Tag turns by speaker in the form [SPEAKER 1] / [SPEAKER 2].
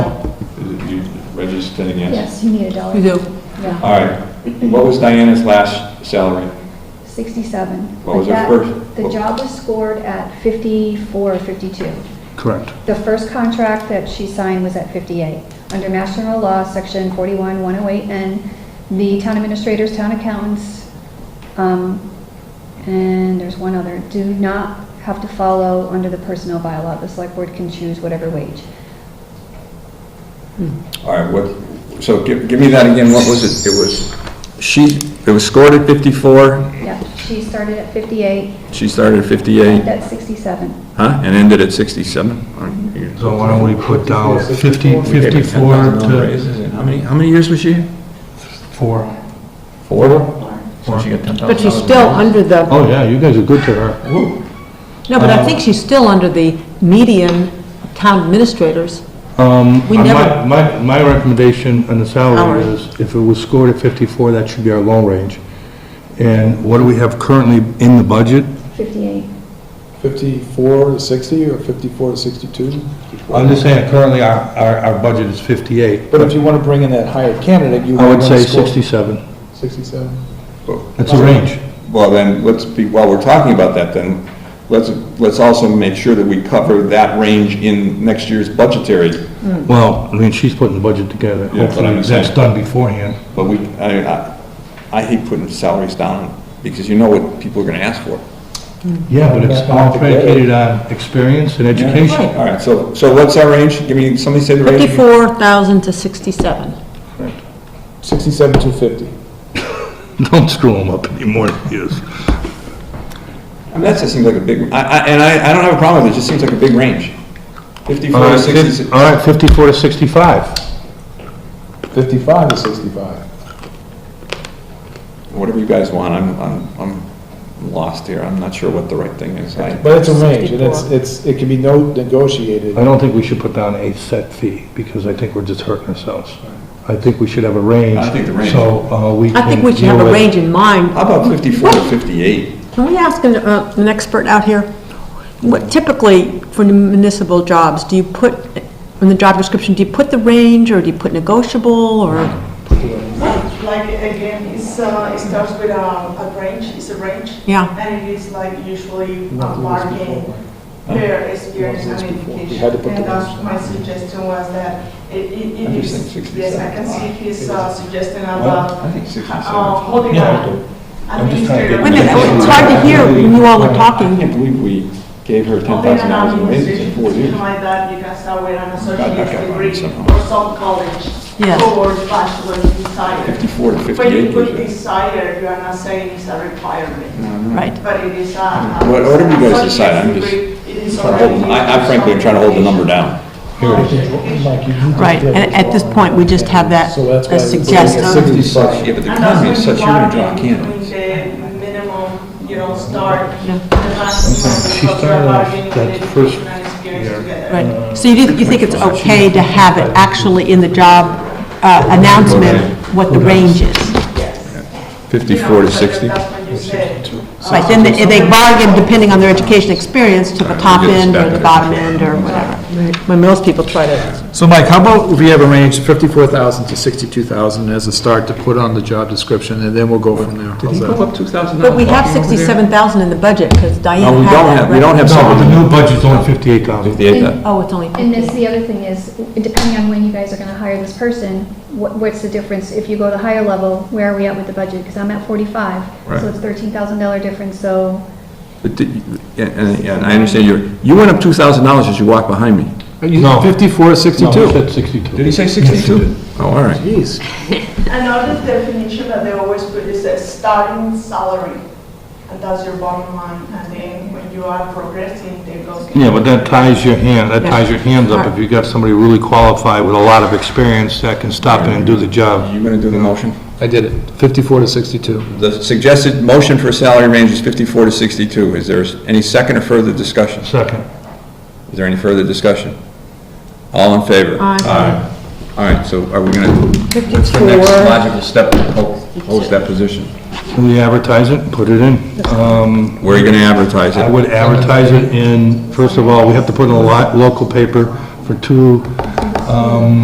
[SPEAKER 1] sitting in?
[SPEAKER 2] Yes, you need a dollar.
[SPEAKER 3] You do.
[SPEAKER 2] Yeah,
[SPEAKER 1] All right. What was Diana's last salary?
[SPEAKER 2] 67.
[SPEAKER 1] What was her
[SPEAKER 2] But that-
[SPEAKER 1] first-
[SPEAKER 2] The job was scored at 54 or 52.
[SPEAKER 4] Correct.
[SPEAKER 2] The first contract that she signed was at 58. Under Mass General Law, Section 41108N, the town administrators, town accountants, um, and there's one other, do not have to follow under the personnel bylaw. The select board can choose whatever wage.
[SPEAKER 1] All right, what, so give, give me that again, what was it? It was, she, it was scored at 54,
[SPEAKER 2] Yeah, she started at 58,
[SPEAKER 1] she started at 58,
[SPEAKER 2] that's 67.
[SPEAKER 1] huh, and ended at 67? All right, here.
[SPEAKER 4] So why don't we put down 50,
[SPEAKER 1] We gave her
[SPEAKER 4] 54
[SPEAKER 1] $10,000
[SPEAKER 4] to
[SPEAKER 1] raises, and How many, how many years was she? here?
[SPEAKER 4] 4?
[SPEAKER 1] Four. So she got ten thousand.
[SPEAKER 3] But she's still under the,
[SPEAKER 4] Oh, yeah, you guys are good to her. Um,
[SPEAKER 3] no, but I think she's still under the median of town administrators.
[SPEAKER 4] Um,
[SPEAKER 3] We
[SPEAKER 4] uh,
[SPEAKER 3] never-
[SPEAKER 4] my, my, my recommendation on the salary
[SPEAKER 3] Hourly.
[SPEAKER 4] is, if it was scored at 54, that should be our low range. And what do we have currently in the budget?
[SPEAKER 2] 58.
[SPEAKER 5] 54 to 60 or 54 to 62?
[SPEAKER 4] I'm just saying, currently, our, our, our budget is 58.
[SPEAKER 5] But if you want to bring in that higher candidate, you
[SPEAKER 4] I
[SPEAKER 5] would
[SPEAKER 4] would
[SPEAKER 5] want
[SPEAKER 4] say
[SPEAKER 5] to score.
[SPEAKER 4] 67.
[SPEAKER 5] 67?
[SPEAKER 4] That's a range.
[SPEAKER 1] Well, then, let's be, while we're talking about that, then, let's, let's also make sure that we cover that range in next year's budgetary
[SPEAKER 4] Well, I mean, she's putting the budget together.
[SPEAKER 1] Yeah, that's what I'm
[SPEAKER 4] Hopefully, that's
[SPEAKER 1] saying.
[SPEAKER 4] done beforehand.
[SPEAKER 1] But we, I, I- I hate putting salaries down, because you know what people are gonna ask for.
[SPEAKER 4] Yeah, but it's all predicated on experience and education.
[SPEAKER 1] All right, so, so what's our range? Give me, somebody say the range.
[SPEAKER 3] 54,000 to 67.
[SPEAKER 5] 67 to 50.
[SPEAKER 4] Don't screw them up anymore, yes.
[SPEAKER 1] I mean, that just seems like a big, I, I, and I, I don't have a problem with it, it just seems like a big range. Fifty-four to sixty-six.
[SPEAKER 4] All right, 54 to 65.
[SPEAKER 5] 55 to 65.
[SPEAKER 1] whatever you guys want, I'm, I'm, I'm lost here, I'm not sure what the right thing is. I-
[SPEAKER 5] But it's a range, and it's,
[SPEAKER 3] 64.
[SPEAKER 5] it's, it can be no negotiated.
[SPEAKER 4] I don't think we should put down a set fee, because I think we're just hurting ourselves. I think we should have a range.
[SPEAKER 1] I think the range.
[SPEAKER 4] So, uh, we
[SPEAKER 3] I think
[SPEAKER 4] can
[SPEAKER 3] we should have
[SPEAKER 4] deal
[SPEAKER 3] a
[SPEAKER 4] with-
[SPEAKER 3] range in mind.
[SPEAKER 1] How about fifty-four to fifty-eight?
[SPEAKER 3] Can we ask an, uh, an expert out here? What typically, for municipal jobs, do you put, in the job description, do you put the range, or do you put negotiable, or?
[SPEAKER 6] Like, again, it's, uh, it starts with a, a range, it's a range.
[SPEAKER 3] Yeah.
[SPEAKER 6] And it is like usually
[SPEAKER 5] Not
[SPEAKER 6] uh,
[SPEAKER 5] doing this before,
[SPEAKER 6] marking
[SPEAKER 5] right?
[SPEAKER 6] their experience
[SPEAKER 5] Not doing this
[SPEAKER 6] and
[SPEAKER 5] before. We
[SPEAKER 6] education.
[SPEAKER 5] had to put
[SPEAKER 6] And
[SPEAKER 5] the
[SPEAKER 6] that's
[SPEAKER 5] range.
[SPEAKER 6] my suggestion was that it, it
[SPEAKER 1] I'm
[SPEAKER 6] it
[SPEAKER 1] just
[SPEAKER 6] is,
[SPEAKER 1] saying 67.
[SPEAKER 6] yes, I can see his uh, suggestion
[SPEAKER 1] I
[SPEAKER 6] about
[SPEAKER 1] think sixty-seven.
[SPEAKER 6] uh, holding
[SPEAKER 4] Yeah, I
[SPEAKER 6] up
[SPEAKER 4] do. I'm just trying to
[SPEAKER 6] administrative.
[SPEAKER 3] Wait
[SPEAKER 4] get-
[SPEAKER 3] Oh, a minute, it's hard to hear when you all were
[SPEAKER 1] I
[SPEAKER 3] talking.
[SPEAKER 1] can't believe we gave her ten
[SPEAKER 6] Holding
[SPEAKER 1] thousand
[SPEAKER 6] an
[SPEAKER 1] dollars in raises
[SPEAKER 6] administrative
[SPEAKER 1] in four years.
[SPEAKER 6] position like that, you can start with an
[SPEAKER 1] got mine
[SPEAKER 6] associate's degree
[SPEAKER 1] somehow.
[SPEAKER 6] or some college.
[SPEAKER 3] Yes.
[SPEAKER 6] Or bachelor's desire.
[SPEAKER 1] Fifty-four to
[SPEAKER 6] When you
[SPEAKER 1] fifty-eight.
[SPEAKER 6] put
[SPEAKER 1] is-
[SPEAKER 6] desire, you are not saying it's a requirement,
[SPEAKER 3] Right.
[SPEAKER 6] but it is a. a-
[SPEAKER 1] What- what do you guys
[SPEAKER 6] so
[SPEAKER 1] decide? I'm
[SPEAKER 6] it's
[SPEAKER 1] just
[SPEAKER 6] re- it is
[SPEAKER 1] trying to hold-
[SPEAKER 6] already-
[SPEAKER 1] I I frankly am trying to hold the number down.
[SPEAKER 5] Mike, you need to
[SPEAKER 3] Right,
[SPEAKER 5] take
[SPEAKER 3] and
[SPEAKER 5] this
[SPEAKER 3] at this
[SPEAKER 5] one.
[SPEAKER 3] point, we just have that
[SPEAKER 5] So that's why
[SPEAKER 3] as
[SPEAKER 5] we're putting it at
[SPEAKER 3] suggested.
[SPEAKER 5] 65.
[SPEAKER 1] but the
[SPEAKER 6] And that's when you bargain between the minimum, you know, start,
[SPEAKER 3] Yeah.
[SPEAKER 6] the maximum,
[SPEAKER 4] She
[SPEAKER 6] because
[SPEAKER 4] started
[SPEAKER 6] you're
[SPEAKER 4] off
[SPEAKER 6] bargaining
[SPEAKER 4] that
[SPEAKER 6] with
[SPEAKER 4] first
[SPEAKER 6] education and experience
[SPEAKER 4] year.
[SPEAKER 6] together.
[SPEAKER 4] Uh,
[SPEAKER 3] Right, so you, did- you think it's okay to have it actually in the job uh, announcement, what the range is?
[SPEAKER 1] Fifty-four to
[SPEAKER 6] You know, but
[SPEAKER 1] sixty?
[SPEAKER 6] That's when you Uh, say.
[SPEAKER 3] Right, then they they bargain depending on their education experience to the top end or the bottom end or whatever. When most people try to,
[SPEAKER 7] So Mike, how about if we have a range, 54,000 to 62,000 as a start to put on the job description, and then we'll go from there? How's that?
[SPEAKER 1] two thousand
[SPEAKER 3] but we have 67,000 in the budget because
[SPEAKER 1] No,
[SPEAKER 3] Diana
[SPEAKER 1] we don't
[SPEAKER 3] had that.
[SPEAKER 1] have, we don't have
[SPEAKER 4] No, the
[SPEAKER 1] something.
[SPEAKER 4] new budget's only 58,000.
[SPEAKER 1] Fifty-eight,
[SPEAKER 3] Oh, it's only
[SPEAKER 2] And this,
[SPEAKER 3] 50.
[SPEAKER 2] the other thing is, depending on when you guys are gonna hire this person, what, what's the difference? If you go the higher level, where are we at with the budget? Because I'm at forty-five,
[SPEAKER 1] Right.
[SPEAKER 2] so it's thirteen thousand dollar difference, so,
[SPEAKER 1] But did- and, and- and I understand you, you went up two thousand dollars as you walked behind me.
[SPEAKER 7] You-
[SPEAKER 4] No.
[SPEAKER 7] 54,
[SPEAKER 4] No,
[SPEAKER 7] 62?
[SPEAKER 4] he said 62.
[SPEAKER 1] Did he say sixty-two? Oh, all right.
[SPEAKER 6] Another definition that they always put is a starting salary, and that's your bottom line, and then when you are progressing, they go.
[SPEAKER 4] Yeah, but that ties your hand, that ties your hands up if you got somebody really qualified with a lot of experience that can stop in and do the job.
[SPEAKER 1] You gonna do the motion?
[SPEAKER 7] I did it, 54 to 62.
[SPEAKER 1] The suggested motion for salary range is 54 to 62. Is there any second or further discussion?
[SPEAKER 4] Second.
[SPEAKER 1] Is there any further discussion? All in favor?
[SPEAKER 3] Aye.
[SPEAKER 1] All right, so are we going to, what's the next
[SPEAKER 3] 54,
[SPEAKER 1] logical step to ho- host that position?
[SPEAKER 4] We advertise it, put it in. Um,
[SPEAKER 1] Where are you going to advertise
[SPEAKER 4] I
[SPEAKER 1] it?
[SPEAKER 4] would advertise it in, first of all, we have to put in a lot, local paper for two, um,